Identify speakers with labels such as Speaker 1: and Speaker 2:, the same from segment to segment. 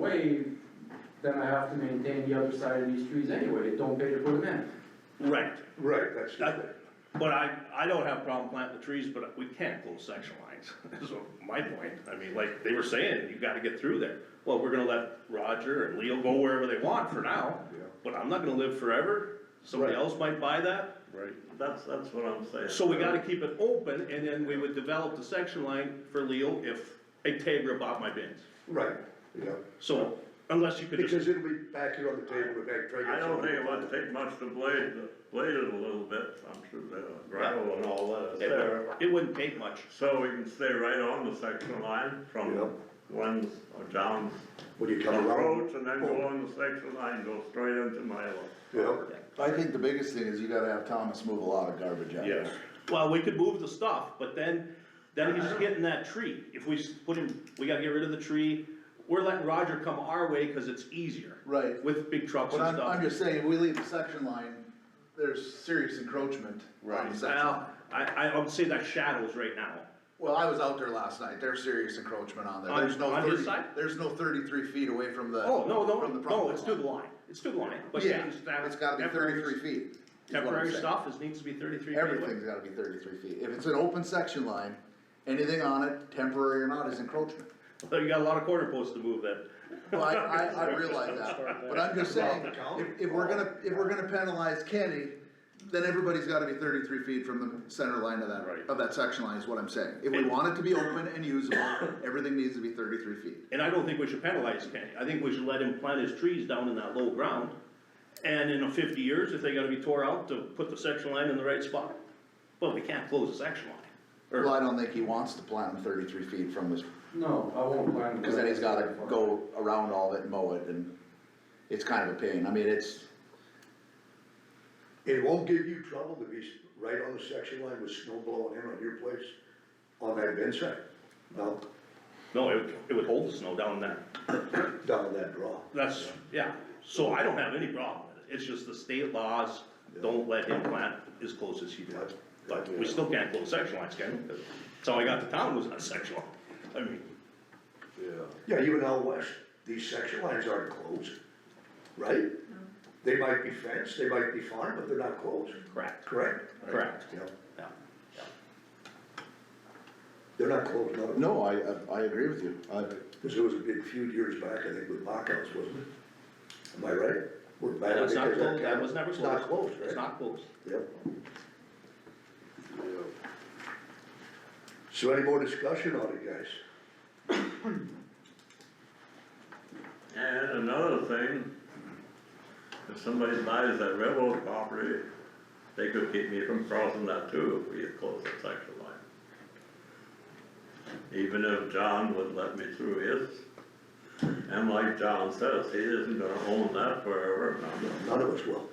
Speaker 1: way, then I have to maintain the other side of these trees anyway, it don't pay to put them in.
Speaker 2: Right,
Speaker 3: Right, that's the
Speaker 2: That-
Speaker 3: thing.
Speaker 2: but I, I don't have a problem planting the trees, but we can't close section lines, is my point. I mean, like they were saying, you gotta get through there. Well, we're gonna let Roger and Leo go wherever they want for now,
Speaker 3: Yeah.
Speaker 2: but I'm not gonna live forever. Somebody
Speaker 3: Right.
Speaker 2: else might buy that.
Speaker 3: Right.
Speaker 4: That's, that's what I'm saying.
Speaker 2: So we gotta keep it open and then we would develop the section line for Leo if a Tegra bought my bins.
Speaker 3: Right, yeah,
Speaker 2: So unless you could just.
Speaker 3: because it'll be back here on the table with that trigger.
Speaker 4: I don't think it would take much to blade, blade it a little bit, I'm sure the gravel and all that is
Speaker 2: It
Speaker 4: there.
Speaker 2: would- It wouldn't take much.
Speaker 4: So we can stay right on the section line
Speaker 3: Yeah.
Speaker 4: from Glenn's or John's
Speaker 3: When you come around.
Speaker 4: approach and then go on the section line, go straight into Milo.
Speaker 3: Yeah,
Speaker 5: I think the biggest thing is you gotta have Thomas move a lot of garbage out.
Speaker 4: Yes.
Speaker 2: Well, we could move the stuff, but then, then he's getting that tree. If we just put him, we gotta get rid of the tree. We're letting Roger come our way because it's easier.
Speaker 5: Right.
Speaker 2: With big trucks
Speaker 5: But
Speaker 2: and
Speaker 5: I'm, I'm
Speaker 2: stuff.
Speaker 5: just saying, if we leave the section line, there's serious encroachment on the section. line.
Speaker 2: Well, I, I I would say that shadows right now.
Speaker 5: Well, I was out there last night, there's serious encroachment on there,
Speaker 2: On-
Speaker 5: there's no
Speaker 2: on his
Speaker 5: thirty,
Speaker 2: side?
Speaker 5: there's no thirty-three feet away from the.
Speaker 2: Oh, no,
Speaker 5: from
Speaker 2: no, no,
Speaker 5: the property
Speaker 2: it's to the
Speaker 5: line.
Speaker 2: line. It's to the line. But
Speaker 5: Yeah,
Speaker 2: it's that-
Speaker 5: it's gotta be
Speaker 2: temporary-
Speaker 5: thirty-three feet. is what I'm
Speaker 2: Temporary
Speaker 5: saying.
Speaker 2: stuff is, needs to be thirty-three feet away.
Speaker 5: Everything's gotta be thirty-three feet, if it's an open section line, anything on it, temporary or not, is encroachment.
Speaker 2: So you got a lot of corner posts to move then.
Speaker 5: Well, I, I, I realize that, but I'm just saying, if, if we're gonna, if we're gonna penalize Kenny, then everybody's gotta be thirty-three feet from the center line of that,
Speaker 2: Right.
Speaker 5: of that section line is what I'm saying. If we want it to be open and usable, everything needs to be thirty-three feet.
Speaker 2: And I don't think we should penalize Kenny, I think we should let him plant his trees down in that low ground. And in fifty years, if they gotta be tore out, to put the section line in the right spot, but we can't close the section line. Or-
Speaker 5: Well, I don't think he wants to plant them thirty-three feet from his,
Speaker 1: No, I won't plant them.
Speaker 5: cause then he's gotta go around all of it and mow it, and it's kind of a pain, I mean, it's,
Speaker 3: it won't give you trouble to be s- right on the section line with snow blowing in on your place, on that bin side, down,
Speaker 2: No, it would, it would hold the snow down there,
Speaker 3: down that draw.
Speaker 2: that's, yeah, so I don't have any problem with it, it's just the state laws don't let him plant as close as he does. But we still can't close section lines, can we? That's how I got to town was on a section line, I mean,
Speaker 3: Yeah, even out west, these section lines aren't closed, right? They might be fenced, they might be farmed, but they're not closed,
Speaker 2: correct,
Speaker 3: correct?
Speaker 2: correct,
Speaker 3: Yeah,
Speaker 2: yeah, yeah.
Speaker 3: they're not closed, no.
Speaker 5: no, I, I, I agree with you, I,
Speaker 3: Cause there was a big feud years back, I think, with Mockhouse, wasn't it? Am I right? We're mad
Speaker 2: That was not
Speaker 3: because that
Speaker 2: closed, that
Speaker 3: town-
Speaker 2: was never
Speaker 3: it's
Speaker 2: closed.
Speaker 3: Not closed, right?
Speaker 2: It's not closed.
Speaker 3: Yep. So any more discussion on it, guys?
Speaker 4: And another thing, if somebody buys that railroad property, they could keep me from crossing that too if we had closed that section line. Even if John would let me through his, and like John says, he isn't gonna own that forever, and I'm not-
Speaker 3: None of us will.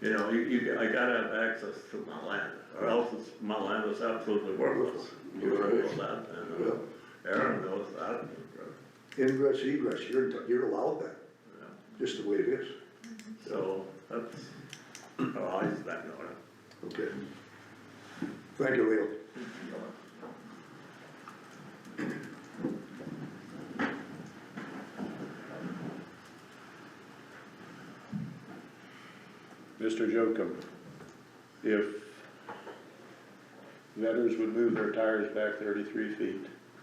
Speaker 4: you know, you, you, I gotta have access to my land, or else it's, my land is absolutely worthless. You know that, and uh, Aaron knows that, and, uh,
Speaker 3: Ingress, egress, you're, you're allowed that,
Speaker 4: you know.
Speaker 3: just the way it is,
Speaker 4: So that's, oh, I just don't know.
Speaker 3: okay? Thank you, Leo.
Speaker 6: Mr. Jokum, if vendors would move their tires back thirty-three feet,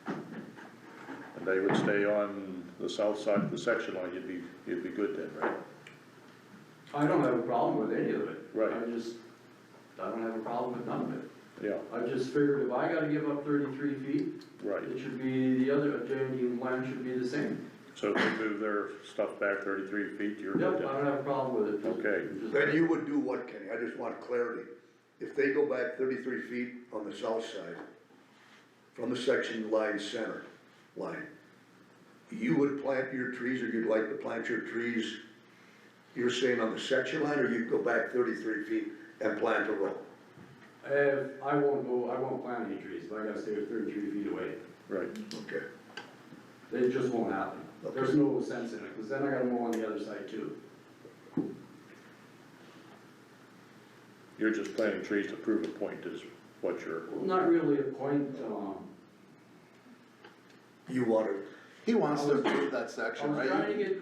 Speaker 6: and they would stay on the south side of the section line, you'd be, you'd be good then, right?
Speaker 1: I don't have a problem with any of it.
Speaker 6: Right.
Speaker 1: I just, I don't have a problem with none of it.
Speaker 6: Yeah,
Speaker 1: I just figured if I gotta give up thirty-three feet,
Speaker 6: right,
Speaker 1: it should be the other, uh, adjoining land should be the same.
Speaker 6: so if they move their stuff back thirty-three feet, you're
Speaker 1: Yep,
Speaker 6: good
Speaker 1: I
Speaker 6: then.
Speaker 1: don't have a problem with it. Just-
Speaker 6: Okay.
Speaker 1: just-
Speaker 3: Then you would do what, Kenny? I just want clarity. If they go back thirty-three feet on the south side, from the section line center line, you would plant your trees, or you'd like to plant your trees, you're saying on the section line, or you'd go back thirty-three feet and plant a row?
Speaker 1: If, I won't go, I won't plant any trees, but I gotta stay thirty-three feet away.
Speaker 6: Right,
Speaker 3: Okay,
Speaker 1: It just won't happen.
Speaker 3: Okay.
Speaker 1: There's no sense in it, because then I gotta mow on the other side too.
Speaker 6: you're just planting trees to prove a point is what you're,
Speaker 1: Well, Not really a point, um,
Speaker 3: you wanna
Speaker 5: He wants to improve that section,
Speaker 1: I'm
Speaker 5: right?
Speaker 1: trying to get